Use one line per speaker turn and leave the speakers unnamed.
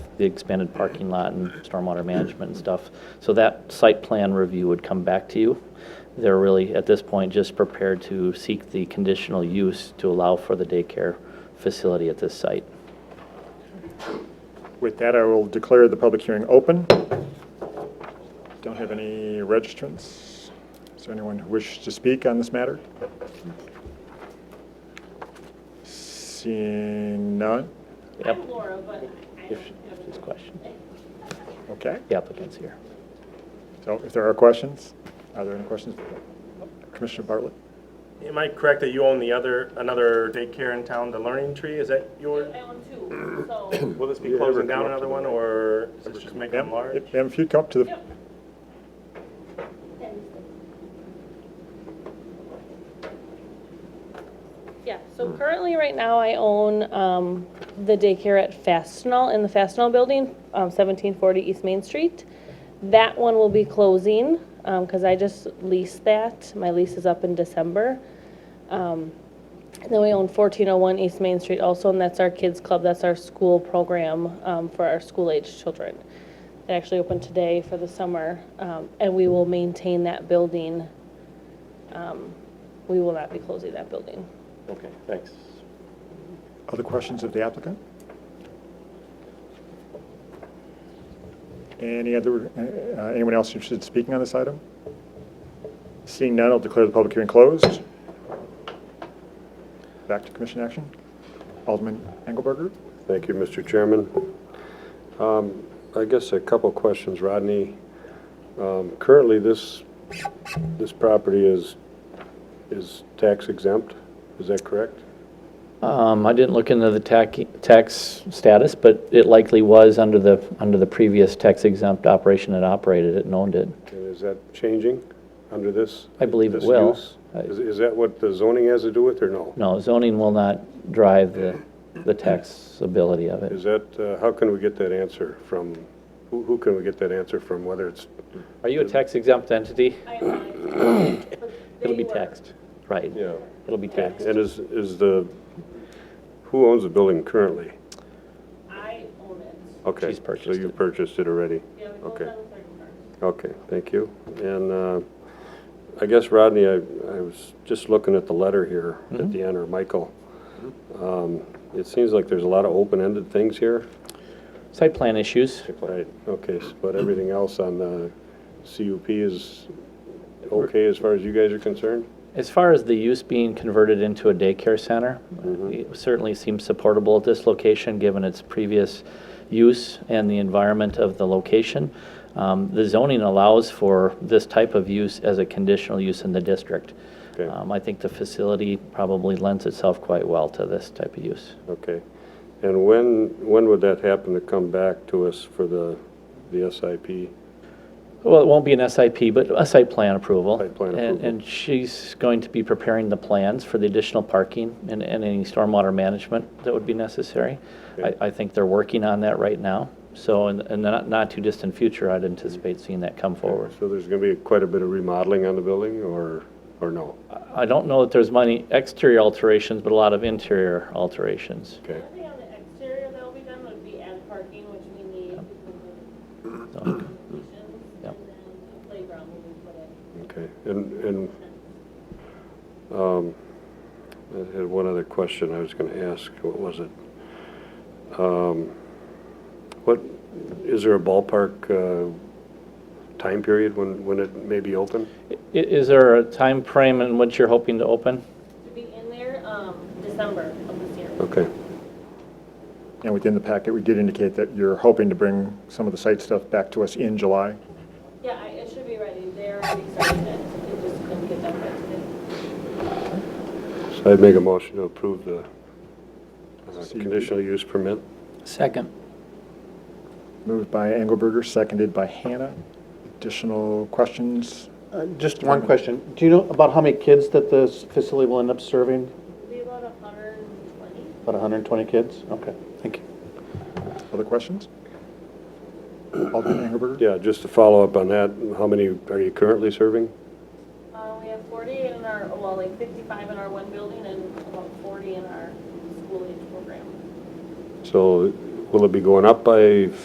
the expanded parking lot and stormwater management and stuff. So that site plan review would come back to you. They're really, at this point, just prepared to seek the conditional use to allow for the daycare facility at this site.
With that, I will declare the public hearing open. Don't have any registrants. Is there anyone who wishes to speak on this matter? Seeing none?
Yep.
I'm Laura, but I
If
don't have
this
a
question,
Okay.
the applicant's here.
So if there are questions, are there any questions? Commissioner Bartlett?
Am I correct that you own the other, another daycare in town, the Learning Tree? Is that your,
I own two, so,
will this be
Yeah, ever
closing
come
down
up to
another
the
one,
right.
or is this just making
Ma'am,
them large?
Ma'am, if you'd come up to the,
yep. Yeah, so currently, right now, I own um, the daycare at Fastenal, in the Fastenal Building, um, 1740 East Main Street. That one will be closing, because I just leased that. My lease is up in December. Um, And then we own 1401 East Main Street also, and that's our kids' club, that's our school program um, for our school-aged children. It actually opened today for the summer, um, and we will maintain that building. Um, We will not be closing that building.
Okay, thanks.
other questions of the applicant? Any other, uh, anyone else interested in speaking on this item? Seeing none, I'll declare the public hearing closed. Back to commission action. Alderman Engelberger?
Thank you, Mr. Chairman. Um, I guess a couple questions, Rodney. Um, Currently, this, this property is, is tax exempt, is that correct?
Um, I didn't look into the tax, tax status, but it likely was under the, under the previous tax exempt operation that operated it and owned it.
And is that changing under this?
I believe it
this
will.
use? Is is that what the zoning has to do with, or no?
No, zoning will not drive the, the taxability of it.
Is that, uh, how can we get that answer from, who who can we get that answer from, whether it's,
Are you a tax exempt entity?
I lied. But
It'll
they
be
were-
taxed, right?
yeah.
It'll be taxed.
And is, is the, who owns the building currently?
I own it.
Okay.
She's purchased
So you
it.
purchased it already?
Yeah, we both
Okay.
on the third part.
Okay, thank you. And uh, I guess, Rodney, I I was just looking at the letter here at the end, or Michael. Um, It seems like there's a lot of open-ended things here.
Site plan issues,
Right, okay, s- but everything else on the CUP is okay as far as you guys are concerned?
as far as the use being converted into a daycare center,
Mm-hmm.
it certainly seems supportable at this location, given its previous use and the environment of the location. Um, The zoning allows for this type of use as a conditional use in the district.
Okay.
Um, I think the facility probably lends itself quite well to this type of use.
Okay. And when, when would that happen to come back to us for the, the SIP?
Well, it won't be an SIP, but a site plan approval.
Site plan
And-
approval.
And she's going to be preparing the plans for the additional parking and, and any stormwater management that would be necessary. I,
Okay.
I think they're working on that right now. So in, in the not, not too distant future, I'd anticipate seeing that come forward.
So there's going to be quite a bit of remodeling on the building, or, or no?
I don't know that there's many exterior alterations, but a lot of interior alterations.
Okay.
Nothing on the exterior that'll be done would be add parking, which we need.
So,
And
Yep.
then the playground will be put in.
Okay, and, and, um, I had one other question I was gonna ask, what was it? Um, what, is there a ballpark, uh, time period when, when it may be open?
i- is there a time frame in which you're hoping to open?
To be in there, um, December of this year.
Okay,
And within the packet, we did indicate that you're hoping to bring some of the site stuff back to us in July.
Yeah, I, it should be ready. They're already starting it. They just couldn't get that ready today.
so I'd make a motion to approve the uh,
See you.
conditional use permit.
Second.
Moved by Engelberger, seconded by Hannah. Additional questions?
Uh, Just one question. Do you know about how many kids that this facility will end up serving?
It'll be about a hundred and twenty.
About 120 kids? Okay, thank you.
Other questions? Alderman Engelberger?
Yeah, just to follow up on that, how many are you currently serving?
Uh, we have forty in our, well, like fifty-five in our one building and about forty in our school age program.
So will it be going up by